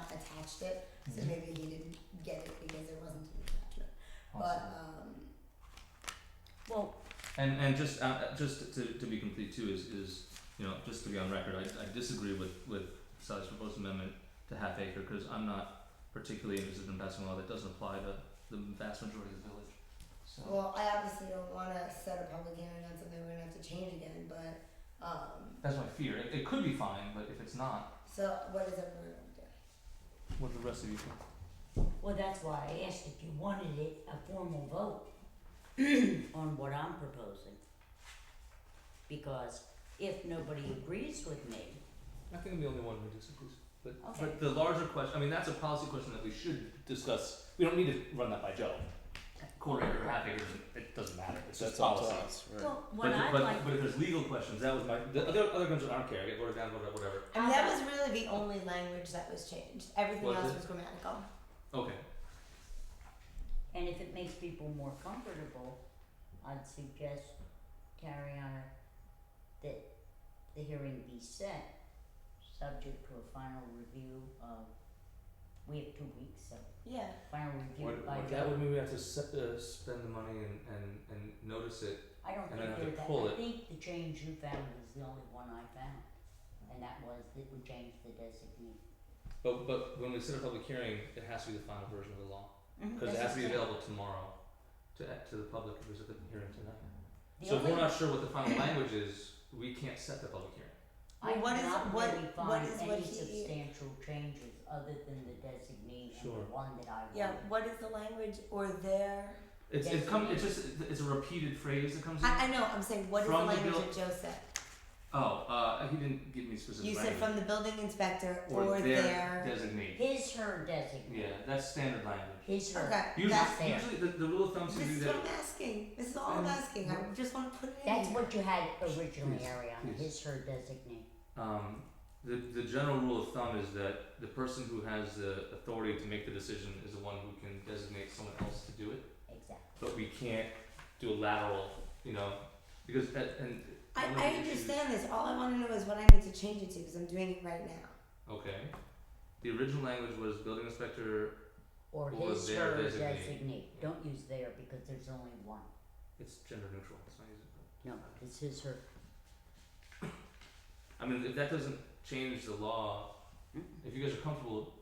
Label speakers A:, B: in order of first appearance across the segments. A: attached it, so
B: Mm-hmm.
A: maybe he didn't get it because there wasn't an attachment. But, um,
C: Well,
B: And and just uh, uh, just to, to be complete too is, is you know just to be on record, I, I disagree with with Sally's proposed amendment to half acre because I'm not particularly interested in passing a law that doesn't apply to the vast majority of the village. So
A: well, I obviously don't wanna set a public hearing on something we're gonna have to change again, but, um,
B: that's my fear. It, it could be fine, but if it's not,
A: so what is everyone gonna do?
B: what do the rest of you think?
C: well, that's why I asked if you wanted it a formal vote on what I'm proposing. Because if nobody agrees with me,
B: I think I'm the only one who disagrees. But
C: Okay.
B: but the larger question, I mean, that's a policy question that we should discuss. We don't need to run that by Joe. Quarter acre, half acre, it doesn't matter. It's just policy.
C: well, what
B: but,
C: I'd
B: but,
C: like,
B: but if there's legal questions, that was my the other other questions I don't care. I get voted down, whatever, whatever.
A: And that was really the only language that was changed, everything
B: Was
A: else
B: it?
A: was grammatical.
B: Okay.
C: and if it makes people more comfortable, I'd suggest, Tariana, that the hearing be set, subject to a final review of, we have two weeks, so
A: Yeah,
C: final review
B: What,
C: by
B: what
C: the-
B: that would mean we have to set, uh, spend the money and, and, and notice it.
C: I don't
B: And
C: think
B: then they
C: there's that,
B: pull
C: I
B: it.
C: think the change you found is the only one I found, and that was that we changed the designee.
B: But but when we set a public hearing, it has to be the final version of the law
A: Mm-hmm.
B: because it has to be available tomorrow to to the public if there's a hearing tonight. so if we're not sure what the final language is, we can't set the public hearing.
C: I
A: Well, what is- what-
C: did
A: what
C: not really
A: is
C: find
A: what
C: any
A: he-
C: substantial changes other than the designee and
B: Sure.
C: the one that I wanted.
A: yeah, what is the language or their,
B: It's it come, it's
C: Definitely.
B: just it's a repeated phrase that comes in.
A: I, I know, I'm saying, what is the
B: From the
A: language
B: bill-
A: that Joe said?
B: oh, uh, he didn't give me specific.
A: You said
B: language.
A: from the building inspector
B: or,
A: or
B: their,
A: their,
B: designee.
C: His, her designee.
B: Yeah, that's standard language.
C: His, her.
A: okay,
B: Usually,
A: that's
C: fair.
B: usually the, the rule of thumb is to
A: This
B: do
A: is
B: that.
A: what I'm asking. This is all I'm
B: And-
A: asking. I just want to put it in.
C: That's
A: here.
C: what you had originally,
B: Please,
C: Ariana,
B: please.
C: his, her designee.
B: Um, the, the general rule of thumb is that the person who has the authority to make the decision is the one who can designate someone else to do it.
C: Exactly.
B: But we can't do a lateral, you know, because that and
A: I,
B: one of
A: I
B: the issues-
A: understand this. All I want to know is what I need to change it to because I'm doing it right now.
B: Okay, the original language was building inspector.
C: Or
B: Or
C: his,
B: their
C: her
B: designee.
C: designee. Don't use their because there's only one.
B: It's gender neutral. It's not used.
C: No, it's his, her.
B: I mean, if that doesn't change the law,
C: Mm.
B: if you guys are comfortable,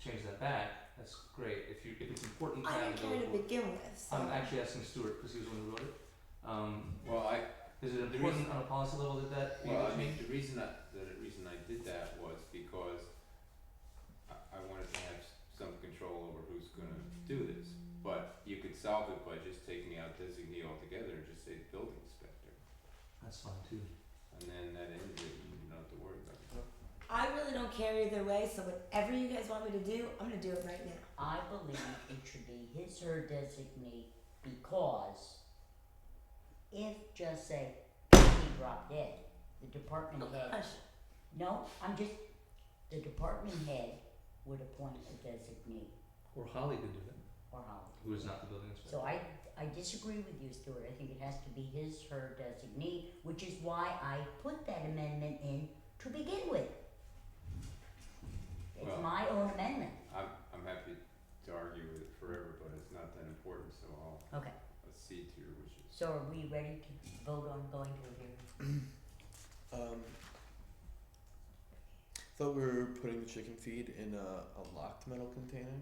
B: change that back. That's great. If you if it's important, to
A: I
B: have
A: didn't
B: the
A: care to
B: local-
A: begin with. So.
B: I'm Um, actually asking Stuart because he was the one who wrote it. Um,
D: Well, I,
B: is it
D: The
B: important
D: reason-
B: on a policy level that that?
D: well, I
B: language
D: mean, the reason that, the reason I did that was because I, I wanted to have s- some control over who's gonna do this. But you could solve it by just taking out designee altogether and just say building inspector,
B: That's fine too.
D: and then that ended it, you don't have to worry about it.
A: I really don't care either way. So whatever you guys want me to do, I'm gonna do it right now.
C: I believe it should be his her designee because if just say he dropped dead, the department head
B: Uh,
A: Gosh.
C: no, I'm just the department head would appoint a designee
B: Or Holly could do that.
C: or Holly.
B: Who is not the building inspector?
C: So I I disagree with you, Stuart. I think it has to be his her designee, which is why I put that amendment in to begin with. It's
D: Well-
C: my own amendment.
D: I'm, I'm happy to argue with it forever, but it's not that important, so I'll
C: Okay.
D: accede to your wishes.
C: So are we ready to vote on going to a hearing?
E: Um, thought we were putting the chicken feed in a, a locked metal container,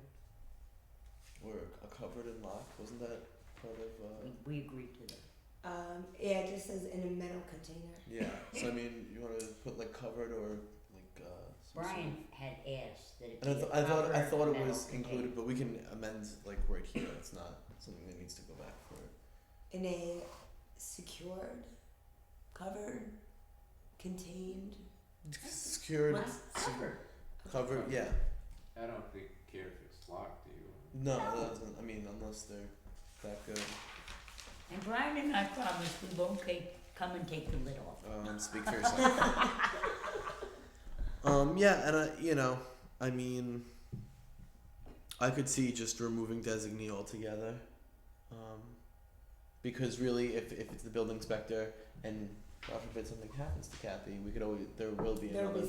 E: or a covered and locked. Wasn't that part of? Uh,
C: We, we agreed to that.
A: Um, yeah, it just says in a metal container.
E: yeah. So I mean, you want to put like covered or like. Uh, some sort
C: Brian had asked that it
E: of- And I,
C: be
E: th-
C: a
E: I thought I
C: proper
E: thought it
C: metal
E: was
C: container.
E: included, but we can amend like right here. It's not something that needs to go back for.
A: In a secured, covered, contained.
E: Secured,
A: What's
E: sec-
A: covered?
E: covered. Yeah.
D: I don't think, care if it's locked, do you?
E: No, that doesn't. I mean, unless they're that good.
C: And Brian and I promised we won't take, come and take the lid off.
E: Um, speak for yourself. um, yeah, and I, you know, I mean, I could see just removing designee altogether, um, because really, if if it's the building inspector and God forbid something happens to Kathy, we could always there will be
A: There will
E: another
A: be